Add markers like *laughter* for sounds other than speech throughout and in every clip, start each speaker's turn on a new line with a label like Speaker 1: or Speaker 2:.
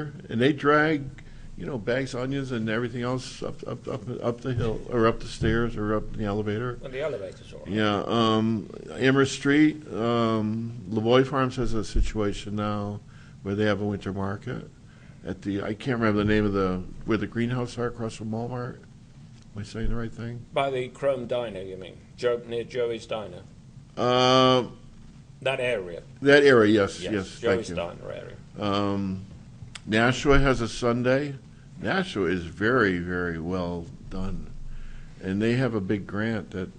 Speaker 1: And they drag, you know, bags, onions and everything else up, up, up, up the hill, or up the stairs, or up the elevator.
Speaker 2: When the elevators are on.
Speaker 1: Yeah, um, Amherst Street, um, Lavoy Farms has a situation now where they have a winter market at the, I can't remember the name of the, where the greenhouse are across from Walmart. Am I saying the right thing?
Speaker 2: By the Chrome Diner, you mean? Joe, near Joey's Diner?
Speaker 1: Uh,
Speaker 2: That area?
Speaker 1: that area, yes, yes, thank
Speaker 2: Joey's
Speaker 1: you.
Speaker 2: Diner area.
Speaker 1: Um, Nashua has a Sunday. Nashua is very, very well done. And they have a big grant that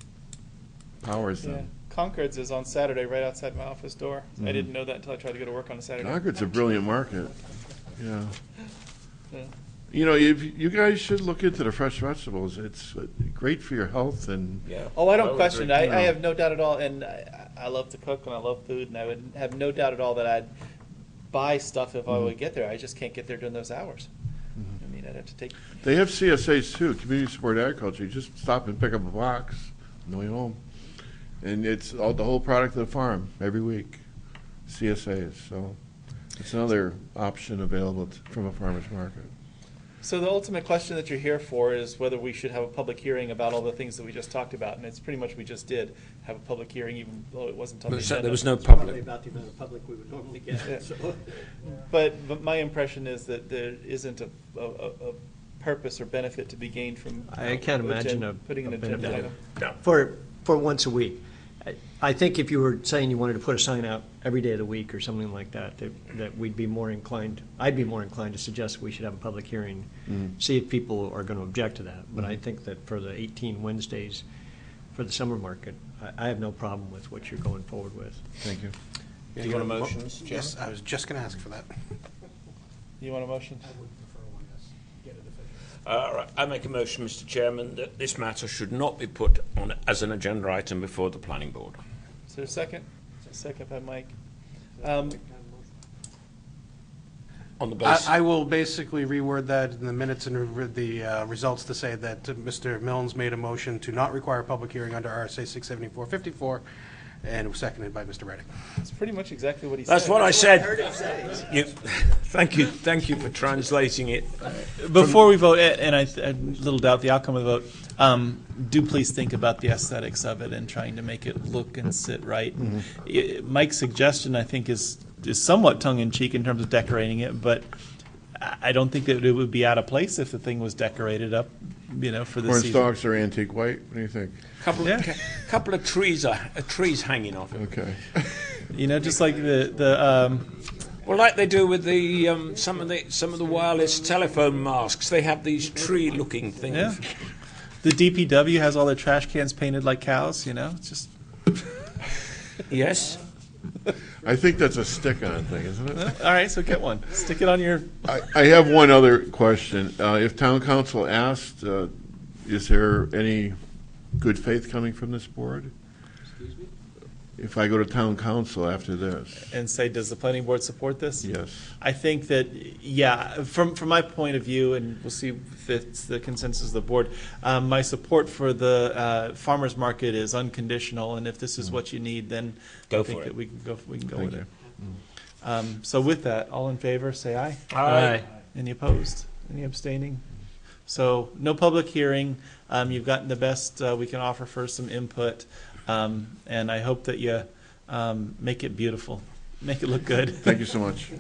Speaker 1: powers
Speaker 3: Yeah.
Speaker 1: them.
Speaker 3: Concord's is on Saturday right outside my office door. I
Speaker 1: Mhm.
Speaker 2: Mm-hmm.
Speaker 3: didn't know that until I tried to go to work on a Saturday.
Speaker 1: Concord's a brilliant market, yeah.
Speaker 3: Yeah.
Speaker 1: You know, if, you guys should look into the fresh vegetables. It's uh, great for your health and,
Speaker 2: Yeah.
Speaker 3: Oh, I
Speaker 2: I
Speaker 3: don't
Speaker 2: would
Speaker 3: question it.
Speaker 2: agree.
Speaker 3: I, I
Speaker 1: No.
Speaker 3: have no doubt at all, and I, I love to cook and I love food, and I would have no doubt at all that I'd buy stuff if I
Speaker 2: Mm-hmm.
Speaker 3: would get there. I just can't get there during those hours. I mean, I'd have to take.
Speaker 1: they have CSAs too, Community Support Agriculture. You just stop and pick up a box on the way home. And it's all, the whole product of the farm every week, CSAs. So it's another option available t- from a farmer's market.
Speaker 3: So the ultimate question that you're here for is whether we should have a public hearing about all the things that we just talked about, and it's pretty much we just did have a public hearing, even though it wasn't on the
Speaker 2: But so
Speaker 3: agenda.
Speaker 2: there was no
Speaker 4: Probably
Speaker 2: public.
Speaker 4: about the amount of public we would normally
Speaker 3: Yeah.
Speaker 4: get, so.
Speaker 3: But, but my impression is that there isn't a, a, a a purpose or benefit to be gained from.
Speaker 4: I can't
Speaker 3: agen-
Speaker 4: imagine a-
Speaker 3: Putting an
Speaker 4: a
Speaker 3: agenda
Speaker 4: benefit.
Speaker 3: item.
Speaker 4: For, for once a week. I- I think if you were saying you wanted to put a sign out every day of the week or something like that, that, that we'd be more inclined, I'd be more inclined to suggest we should have a public hearing, see if people are going to object to that. But I think that for the 18 Wednesdays for the summer market, I, I have no problem with what you're going forward with.
Speaker 1: Thank you.
Speaker 2: Do you want a motion, Mr. Chairman?
Speaker 5: Yes, I was just going to ask for that.
Speaker 3: You want a motion?
Speaker 2: All right. I make a motion, Mr. Chairman, that this matter should not be put on as an agenda item before the planning board.
Speaker 3: Is there a second? Second by Mike. Um,
Speaker 2: On the basis.
Speaker 5: I I will basically reword that in the minutes and re- the uh, results to say that uh, Mr. Milnes made a motion to not require a public hearing under RSA 67454, and it was seconded by Mr. Reddick.
Speaker 3: It's pretty much exactly what he said.
Speaker 2: That's what I said. You, *laughs* thank you, thank you for translating it.
Speaker 3: Before we vote, and I, I little doubt the outcome of the vote, um, do please think about the aesthetics of it and trying to make it look and sit right. And i- Mike's suggestion, I think, is, is somewhat tongue in cheek in terms of decorating it, but I I don't think that it would be out of place if the thing was decorated up, you know, for the
Speaker 1: Orange
Speaker 3: season.
Speaker 1: dogs are antique white. What do you think?
Speaker 2: Couple,
Speaker 3: Yeah.
Speaker 2: of, couple of trees are uh, trees hanging off it.
Speaker 1: Okay. *laughs*
Speaker 3: You know, just like the, the, um,
Speaker 2: Well, like they do with the um, some of the some of the wireless telephone masks, they have these tree-looking things.
Speaker 3: yeah. The DPW has all their trash cans painted like cows, you know, it's just.
Speaker 2: Yes.
Speaker 1: I think that's a stick-on thing, isn't it?
Speaker 3: All right, so get one. Stick it on your.
Speaker 1: I, I have one other question. Uh, if town council asked, uh, is there any good faith coming from this board? If I go to town council after this,
Speaker 3: And say, does the planning board support this?
Speaker 1: yes.
Speaker 3: I think that, yeah, from, from my point of view, and we'll see if it's the consensus of the board, um, my support for the uh, farmer's market is unconditional, and if this is what you need, then
Speaker 2: Go
Speaker 3: I think
Speaker 2: for it.
Speaker 3: that we can go, we can go
Speaker 1: Thank
Speaker 3: with
Speaker 1: you.
Speaker 3: it. Um, so with that, all in favor, say aye.
Speaker 2: Aye.
Speaker 3: Any opposed? Any abstaining? So no public hearing. Um, you've gotten the best uh, we can offer for some input, um, and I hope that you um, make it beautiful, make it look good.
Speaker 1: Thank you so much.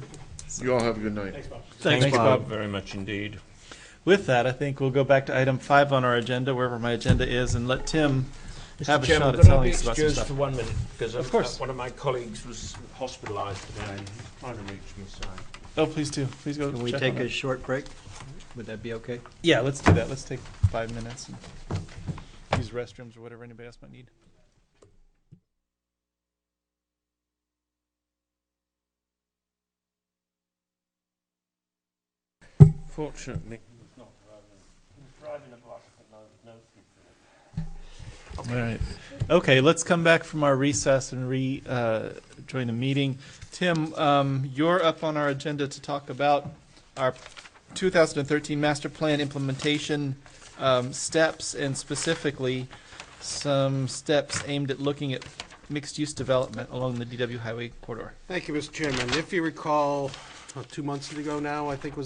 Speaker 1: You all have a good night.
Speaker 2: Thank you,
Speaker 3: Bob.
Speaker 2: Bob, very much indeed.
Speaker 3: With that, I think we'll go back to item five on our agenda, wherever my agenda is, and let Tim have a shot at telling us about some
Speaker 2: excused for
Speaker 3: stuff.
Speaker 2: one minute? Because
Speaker 3: Of course.
Speaker 2: one of my colleagues was hospitalised today and he's trying to reach me, sorry.
Speaker 3: Oh, please do. Please go.
Speaker 4: Can we
Speaker 3: check
Speaker 4: take
Speaker 3: on
Speaker 4: a
Speaker 3: it.
Speaker 4: short break? Would that be okay?
Speaker 3: Yeah, let's do that. Let's take five minutes and use restrooms or whatever anybody else might need.
Speaker 2: Fortunately.
Speaker 3: All right. Okay, let's come back from our recess and re, uh, join the meeting. Tim, um, you're up on our agenda to talk about our 2013 master plan implementation, um, steps and specifically some steps aimed at looking at mixed-use development along the DW Highway corridor.
Speaker 5: Thank you, Mr. Chairman. If you recall, two months ago now, I think was